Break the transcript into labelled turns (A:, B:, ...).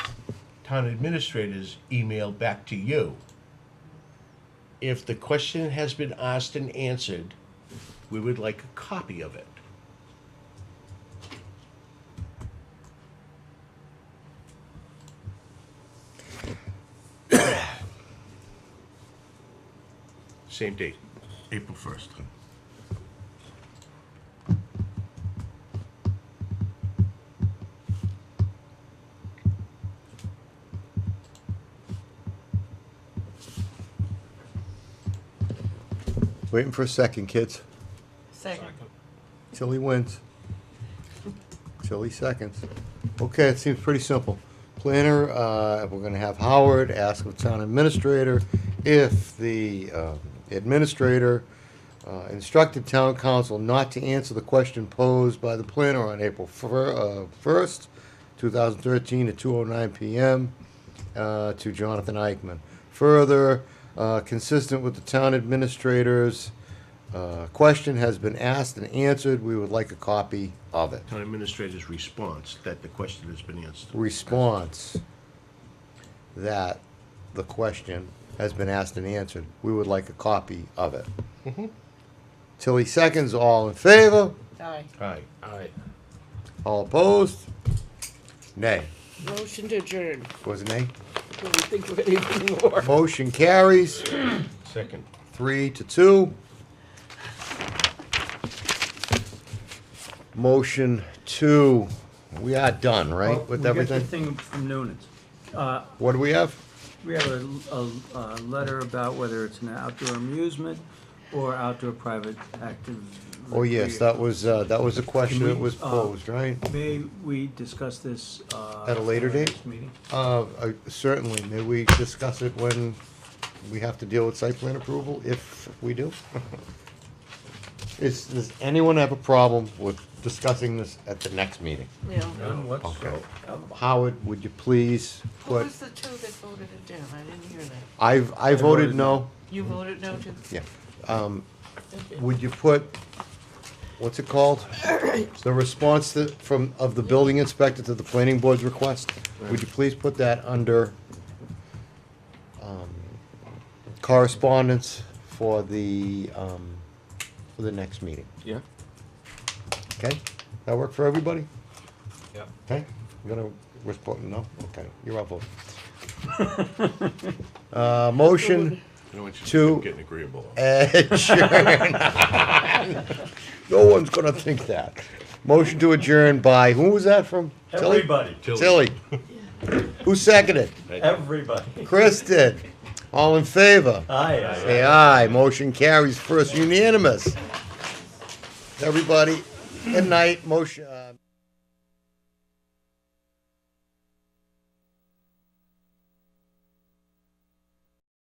A: town administrator's email back to you. If the question has been asked and answered, we would like a copy of it. Same date, April first.
B: Waiting for a second, kids.
C: Second.
B: Till he wins. Till he seconds. Okay, it seems pretty simple. Planner, uh, we're gonna have Howard ask the town administrator if the, uh, administrator uh, instructed town council not to answer the question posed by the planner on April fir- uh, first, two thousand thirteen at two oh nine PM, uh, to Jonathan Eichman. Further, uh, consistent with the town administrator's, uh, question has been asked and answered, we would like a copy of it.
A: Town administrator's response that the question has been answered.
B: Response that the question has been asked and answered, we would like a copy of it.
D: Mm-hmm.
B: Tilly seconds, all in favor,
C: Aye.
A: Aye.
B: all opposed? Nay,
C: Motion to adjourn.
B: was it nay?
C: Do we think of anything more?
B: Motion carries,
A: Second.
B: three to two. Motion two, we are done, right, with
D: We got the
B: everything?
D: thing from Noonan's. Uh,
B: What do we have?
D: We have a, a, a letter about whether it's an outdoor amusement or outdoor private active.
B: Oh, yes, that was, uh, that was a question that was
D: uh,
B: posed, right?
D: May we discuss this, uh?
B: At a later
D: our
B: date?
D: next Meeting?
B: Uh, uh, certainly, may we discuss it when we have to deal with site plan approval, if we do? Is, does anyone have a problem with discussing this at the next meeting?
C: Yeah.
B: Okay. um, Howard, would you please
C: Who
B: put,
C: was the two that voted it down? I didn't hear that.
B: I've, I voted
D: voted
B: no,
C: You voted no to?
B: yeah. Um, would you put, what's it called? The response that, from, of the building inspector to the planning board's request, would you please put that under um, correspondence for the, um, for the next meeting?
E: Yeah.
B: Okay? That work for everybody?
E: Yeah.
B: Okay, you're gonna respond, no? Okay, you're up. vote. Uh, motion
A: I don't want you to
B: Two.
A: keep Getting agreeable.
B: adjourn. No one's gonna think that. Motion to adjourn by, who was that from? Tilly?
D: Everybody,
B: Tilly. Who seconded?
D: everybody.
B: Chris did. All in favor?
D: Aye, aye.
B: Say aye, motion carries first unanimous. Everybody, good night, motion, uh.